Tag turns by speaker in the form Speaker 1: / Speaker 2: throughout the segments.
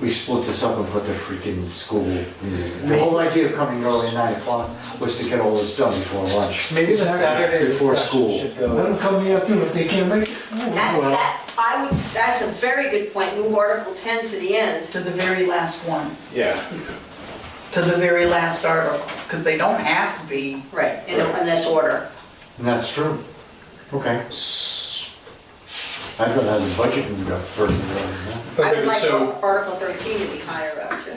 Speaker 1: we split this up and put the freaking school. The whole idea of coming early at nine o'clock was to get all this done before lunch.
Speaker 2: Maybe the Saturday
Speaker 1: Before
Speaker 2: discussion
Speaker 1: school.
Speaker 2: should
Speaker 3: Let
Speaker 2: go.
Speaker 3: them come in the afternoon if they can't make it.
Speaker 4: That's,
Speaker 1: Well-
Speaker 4: that, I would, that's a very good point, move Article 10 to the end.
Speaker 5: to the very last one,
Speaker 2: Yeah.
Speaker 5: to the very last article, because they don't have to be.
Speaker 4: Right. In in this order.
Speaker 1: And that's true. Okay. I'd rather have the budget and go further than
Speaker 4: I
Speaker 6: Okay,
Speaker 4: would like
Speaker 6: so-
Speaker 4: Article 13 to be higher up too.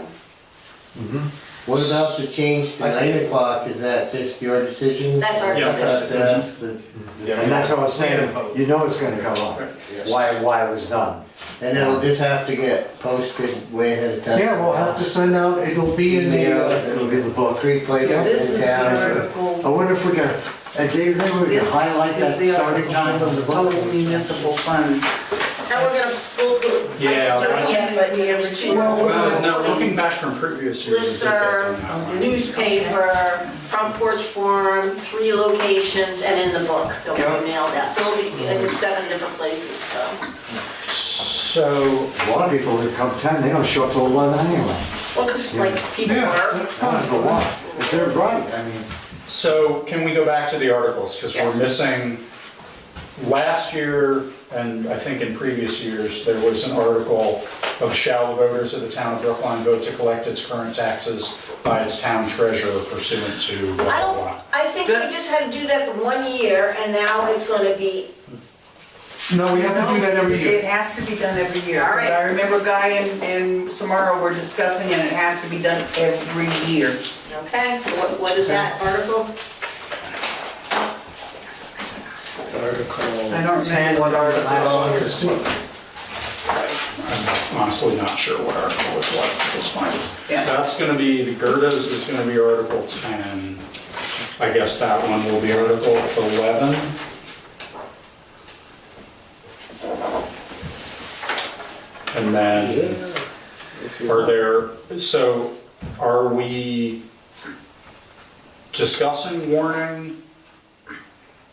Speaker 1: Mm-hmm.
Speaker 7: What about the change to
Speaker 2: I think-
Speaker 7: nine o'clock, is that just your decision?
Speaker 4: That's our
Speaker 7: Is
Speaker 6: Yeah,
Speaker 4: decision.
Speaker 7: that,
Speaker 2: decision.
Speaker 7: uh, the-
Speaker 1: that. And that's what I was saying, you know it's gonna come up, why, why it was done.
Speaker 7: And it'll just have to get posted way ahead of time.
Speaker 1: Yeah, we'll have to send out, it'll be in the,
Speaker 7: Emails,
Speaker 1: uh, it'll be in the book.
Speaker 7: Three
Speaker 5: This
Speaker 7: places
Speaker 5: is
Speaker 7: in
Speaker 5: the
Speaker 7: town.
Speaker 1: I
Speaker 5: article.
Speaker 1: wonder if we can, and Dave, maybe we can
Speaker 5: This
Speaker 1: highlight
Speaker 5: is
Speaker 1: that
Speaker 5: the
Speaker 1: starting
Speaker 5: article
Speaker 1: time of the book.
Speaker 5: Total municipal funds.
Speaker 4: Now we're gonna, we'll, we'll.
Speaker 6: Yeah,
Speaker 4: I don't
Speaker 6: right.
Speaker 4: know yet, but there's two.
Speaker 6: Well, no, looking back from previous years. I think that-
Speaker 4: Listserv, newspaper, front porch forum, three locations, and in the book that we mailed out. So it'll be in seven different places, so.
Speaker 6: So,
Speaker 1: A lot of people that come ten, they don't show up till eleven anyway.
Speaker 4: Well, because like people work.
Speaker 1: That's fine for what? It's their right, I mean.
Speaker 6: so can we go back to the articles? Because
Speaker 4: Yes.
Speaker 6: we're missing, last year, and I think in previous years, there was an article of shall the voters of the town of Brookline vote to collect its current taxes by its town treasurer pursuant to
Speaker 4: I
Speaker 6: blah, blah,
Speaker 4: don't,
Speaker 6: blah.
Speaker 4: I think we just had to do that the one year, and now it's gonna be,
Speaker 1: No, we have to do that every
Speaker 5: It
Speaker 1: year.
Speaker 5: has to be done every year.
Speaker 4: All right.
Speaker 5: I remember Guy and, and Samara were discussing, and it has to be done every year.
Speaker 4: okay, so what, what is that article?
Speaker 5: I don't remember what article it is.
Speaker 6: I'm honestly not sure what article it's like at this point.
Speaker 5: Yeah.
Speaker 6: That's going to be, the Gerdas is going to be Article 10. I guess that one will be Article 11. And then, are there, so are we discussing warning,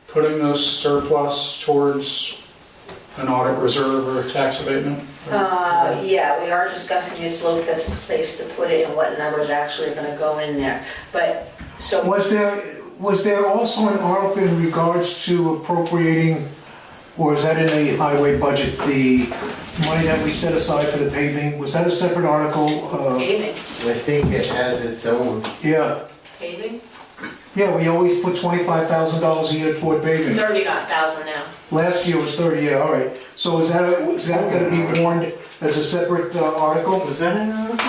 Speaker 6: putting those surplus towards an audit reserve or a tax abatement?
Speaker 4: Uh, yeah, we are discussing it's low best place to put it and what numbers actually are gonna go in there, but, so.
Speaker 3: Was there, was there also an article in regards to appropriating, or is that in the highway budget, the money that we set aside for the paving? Was that a separate article? Uh,
Speaker 4: Paving,
Speaker 7: I think it has its own.
Speaker 3: Yeah,
Speaker 4: paving,
Speaker 3: yeah, we always put $25,000 a year toward paving.
Speaker 4: thirty-nine thousand now.
Speaker 3: Last year was 30, yeah, all right. So is that, is that gonna be warned as a separate uh, article?
Speaker 1: Was that an article?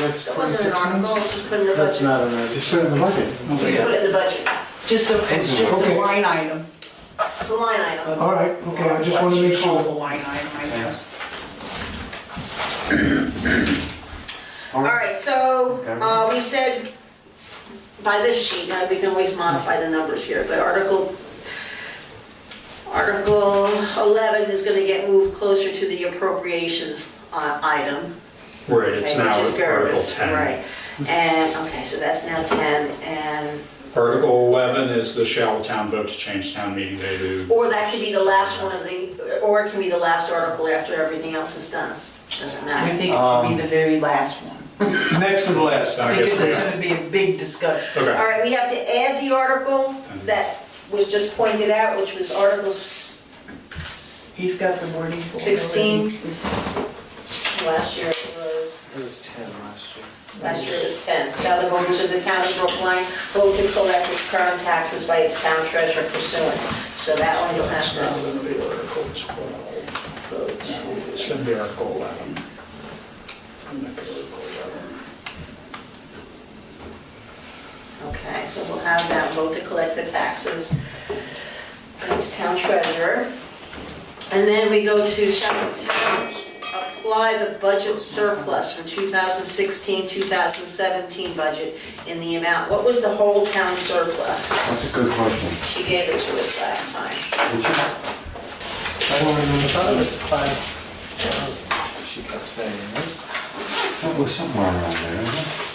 Speaker 1: That's
Speaker 4: That wasn't an
Speaker 1: twenty-six
Speaker 4: article,
Speaker 1: months?
Speaker 4: it's just put in the
Speaker 7: That's
Speaker 4: budget,
Speaker 7: not an idea.
Speaker 1: Just put it in the budget.
Speaker 4: just put it in the budget,
Speaker 5: Just a, it's just a line item.
Speaker 4: it's a line item.
Speaker 3: All right, okay, I just wanna make
Speaker 5: What she calls a
Speaker 3: sure.
Speaker 5: line item, I guess.
Speaker 4: All right, so,
Speaker 1: Okay.
Speaker 4: uh, we said by this sheet, now we can always modify the numbers here, but Article, Article 11 is gonna get moved closer to the appropriations uh, item.
Speaker 6: Right, it's
Speaker 4: okay,
Speaker 6: now
Speaker 4: which is
Speaker 6: Article
Speaker 4: GERS,
Speaker 6: 10.
Speaker 4: Right, and, okay, so that's now 10, and,
Speaker 6: Article 11 is the shall the town vote to change town meeting day to...
Speaker 4: or that could be the last one of the, or it can be the last article after everything else is done, doesn't
Speaker 5: I
Speaker 4: matter.
Speaker 5: think it should be
Speaker 1: Um,
Speaker 5: the very last one,
Speaker 3: Next to the last.
Speaker 6: I
Speaker 5: because there's
Speaker 6: guess
Speaker 5: gonna be a big discussion.
Speaker 6: we...
Speaker 4: All
Speaker 6: Okay,
Speaker 4: right, we have to add the article that was just pointed out, which was Article s-
Speaker 5: He's got the wording for it.
Speaker 4: 16. Last year it was,
Speaker 2: It was 10 last year.
Speaker 4: last year it was 10. Shall the voters of the town of Brookline vote to collect its current taxes by its town treasurer pursuant? So that one you'll have
Speaker 6: it's now
Speaker 4: to
Speaker 6: going to be Article 12.
Speaker 4: vote.
Speaker 6: No, It's going to be Article 11. I'm gonna pick Article 11.
Speaker 4: Okay, so we'll have that vote to collect the taxes by its town treasurer. And then we go to shall the town apply the budget surplus from 2016, 2017 budget in the amount, what was the whole town surplus?
Speaker 1: That's a good question.
Speaker 4: She gave it to us last time.
Speaker 1: Did you?
Speaker 2: I don't remember, I thought it was 5,000, she kept saying, right?
Speaker 1: That was somewhere around there, isn't it?